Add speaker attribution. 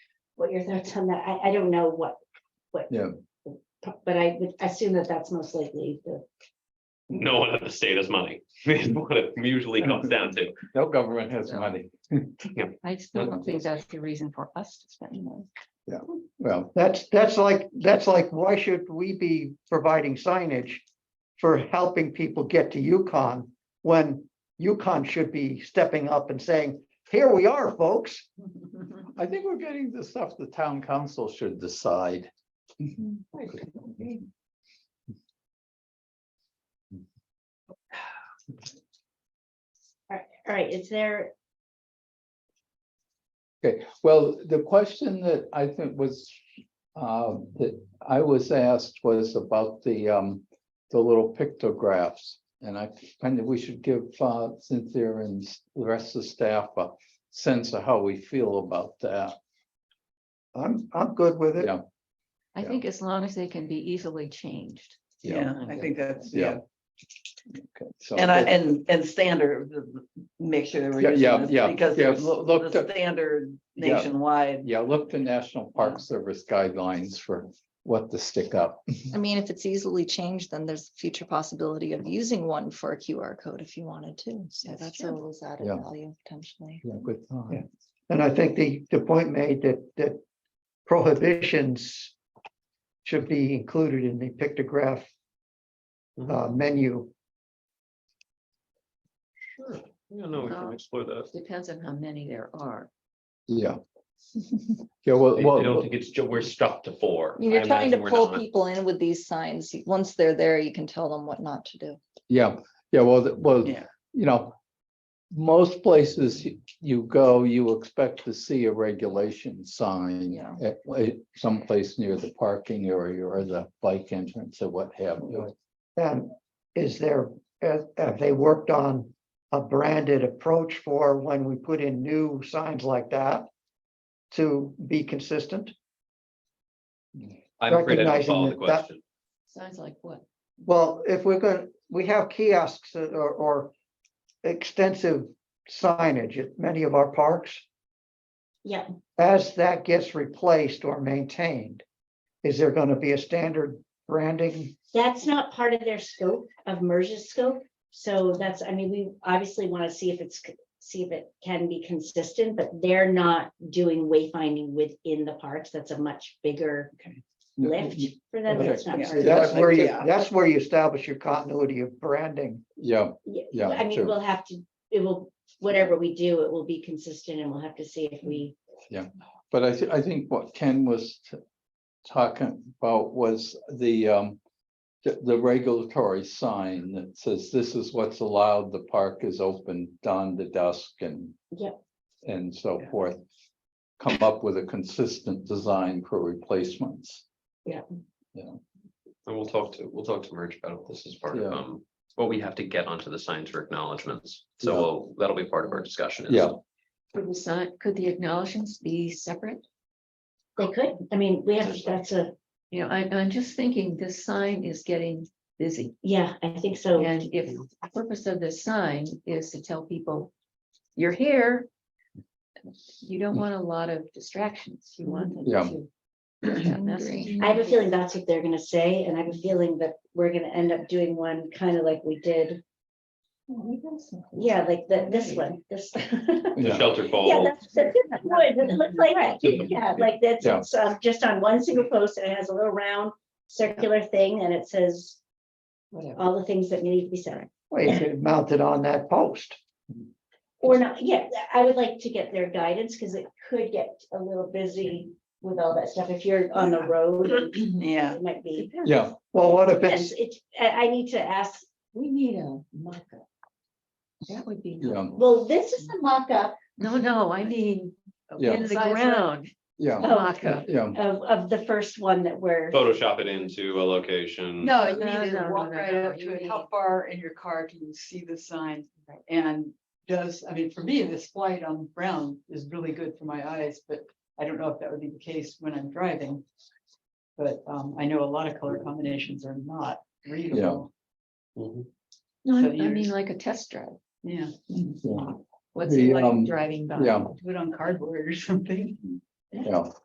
Speaker 1: what your thoughts on that? I, I don't know what, what.
Speaker 2: Yeah.
Speaker 1: But I would assume that that's most likely the,
Speaker 3: No one in the state has money. It's
Speaker 2: Mm-hmm.
Speaker 3: what it usually comes down to.
Speaker 2: No government has money.
Speaker 4: I still don't think that's the reason for us to spend money.
Speaker 2: Well,
Speaker 5: That's, that's like, that's like, why should we be providing signage for helping people get to Yukon? When Yukon should be stepping up and saying, here we are, folks.
Speaker 2: I think we're getting the stuff the town council should decide.
Speaker 6: Mm-hmm.
Speaker 1: all right, is there,
Speaker 2: Well, the question that I think was, uh, that I was asked was about the, um, the little pictographs. And I kind of, we should give uh, Cynthia and the rest of the staff a sense of how we feel about that.
Speaker 5: I'm, I'm good with it.
Speaker 2: Yeah.
Speaker 4: I
Speaker 2: Yeah.
Speaker 4: think as long as they can be easily changed.
Speaker 6: Yeah, I think that's,
Speaker 2: Yeah.
Speaker 6: yeah,
Speaker 2: Okay, so-
Speaker 6: and I, and, and standard, the- make sure. that we're
Speaker 2: Yeah,
Speaker 6: using
Speaker 2: yeah,
Speaker 6: this,
Speaker 2: yeah,
Speaker 6: Because
Speaker 2: yeah,
Speaker 6: there's
Speaker 2: loo- look
Speaker 6: the
Speaker 2: to-
Speaker 6: standard
Speaker 2: Yeah.
Speaker 6: nationwide,
Speaker 2: Yeah, look to National Park Service guidelines for what to stick up.
Speaker 7: I mean, if it's easily changed, then there's future possibility of using one for a QR code if you wanted to. So
Speaker 4: That's
Speaker 7: that's
Speaker 4: true.
Speaker 7: always added
Speaker 2: Yeah.
Speaker 7: value potentially.
Speaker 2: Yeah, good thought.
Speaker 5: Yeah. And I think the, the point made that, that prohibitions should be included in the pictograph
Speaker 2: Mm-hmm.
Speaker 5: uh, menu.
Speaker 3: Sure. Yeah, no, we can
Speaker 7: uh,
Speaker 4: Um,
Speaker 3: explore that.
Speaker 4: Depends on how many there are.
Speaker 2: Yeah. Yeah, well,
Speaker 3: I
Speaker 2: well.
Speaker 3: don't think it's, ju- we're stuck to four.
Speaker 7: I mean, You're
Speaker 3: I
Speaker 7: trying to
Speaker 3: imagine we're
Speaker 7: pull
Speaker 3: not.
Speaker 7: people in with these signs. You- Once they're there, you can tell them what not to do.
Speaker 2: Yeah, yeah, well, the- well,
Speaker 6: Yeah.
Speaker 2: you know. Most places y- you go, you expect to see a regulation sign.
Speaker 4: Yeah.
Speaker 2: at- at Someplace near the parking area or the bike entrance or what have you.
Speaker 5: And is there, have, have they worked on a branded approach for when we put in new signs like that? To be consistent?
Speaker 3: I'm afraid I don't
Speaker 5: recognizing
Speaker 3: follow the
Speaker 5: that that-
Speaker 3: question.
Speaker 4: Sounds like what?
Speaker 5: Well, if we're gonna, we have kiosks or, or extensive signage at many of our parks.
Speaker 1: yeah,
Speaker 5: As that gets replaced or maintained, is there gonna be a standard branding?
Speaker 1: that's not part of their scope of MERS's scope. So that's, I mean, we obviously want to see if it's, c- see if it can be consistent, but they're not doing wayfinding within the parks. That's a much bigger lift for them. That's not
Speaker 6: Yeah.
Speaker 1: part of their
Speaker 5: That's
Speaker 6: like-
Speaker 5: where you,
Speaker 6: yeah.
Speaker 5: that's where you establish your continuity of branding.
Speaker 2: Yeah,
Speaker 1: Yeah,
Speaker 2: Yeah,
Speaker 1: I mean,
Speaker 2: true.
Speaker 1: we'll have to, it will, whatever we do, it will be consistent and we'll have to see if we,
Speaker 2: but I, thi- I think what Ken was t- talking about was the, um. The, the regulatory sign that says this is what's allowed, the park is open dawn to dusk and.
Speaker 1: Yep.
Speaker 2: And so
Speaker 6: Yeah.
Speaker 2: forth. Come up with a consistent design for replacements.
Speaker 3: And we'll talk to, we'll talk to merge about it. This is part of,
Speaker 2: Yeah.
Speaker 3: um, what we have to get onto the signs for acknowledgements. So
Speaker 2: Yeah.
Speaker 3: we'll- that'll be part of our discussion. is-
Speaker 2: Yeah.
Speaker 4: Could the sign, could the acknowledgements be separate?
Speaker 1: they could, I mean, we have, that's a,
Speaker 4: You know, I, I'm just thinking this sign is getting busy.
Speaker 1: yeah, I think so.
Speaker 4: And if the purpose of this sign is to tell people, you're here. You don't want a lot of distractions. You want
Speaker 2: Yeah.
Speaker 4: them to. get that message.
Speaker 1: I have a feeling that's what they're gonna say, and I have a feeling that we're gonna end up doing one kind of like we did,
Speaker 4: "Oh,
Speaker 1: yeah, like the, this one, this.
Speaker 3: The shelter
Speaker 1: Yeah,
Speaker 3: fall,
Speaker 1: that's, that's wood, it looks like, that. yeah, like that's,
Speaker 2: Yeah.
Speaker 1: it's, um, just on one single post, and it has a little round circular thing, and it says
Speaker 4: Whatever.
Speaker 1: all the things that need to be said.
Speaker 5: Well, you could mount it on that post.
Speaker 1: Or not, yeah, I would like to get their guidance, because it could get a little busy with all that stuff, if you're on the road,
Speaker 6: yeah.
Speaker 1: it might be.
Speaker 2: Yeah,
Speaker 5: Well, what if
Speaker 1: Yes,
Speaker 5: it's,
Speaker 1: it's, I, I need to ask,
Speaker 4: We need a mock-up. That would be,
Speaker 2: yeah,
Speaker 1: well, this is the mock-up
Speaker 4: no, no, I mean,
Speaker 2: Yeah.
Speaker 4: in the ground, Oh,
Speaker 2: yeah,
Speaker 4: mock-up.
Speaker 2: yeah,
Speaker 1: of, of the first one that we're,
Speaker 3: Photoshop it into a location.
Speaker 8: No, you
Speaker 4: No,
Speaker 8: need
Speaker 4: no,
Speaker 8: to
Speaker 4: no,
Speaker 8: walk
Speaker 4: no,
Speaker 8: right
Speaker 4: no,
Speaker 8: up
Speaker 4: you
Speaker 8: to it.
Speaker 4: need-
Speaker 8: How far in your car can you see the sign?
Speaker 4: Right.
Speaker 8: And does, I mean, for me, this light on brown is really good for my eyes, but I don't know if that would be the case when I'm driving. But um, I know a lot of color combinations are not readable.
Speaker 2: Mm-hmm.
Speaker 3: Mhm.
Speaker 4: No, I
Speaker 8: So
Speaker 4: I mean,
Speaker 8: you're-
Speaker 4: like a test drive.
Speaker 8: Yeah,
Speaker 2: yeah,
Speaker 4: What's
Speaker 2: The,
Speaker 4: it like
Speaker 2: um,
Speaker 4: driving by?
Speaker 2: yeah.
Speaker 8: do it on cardboard or something.
Speaker 2: yeah.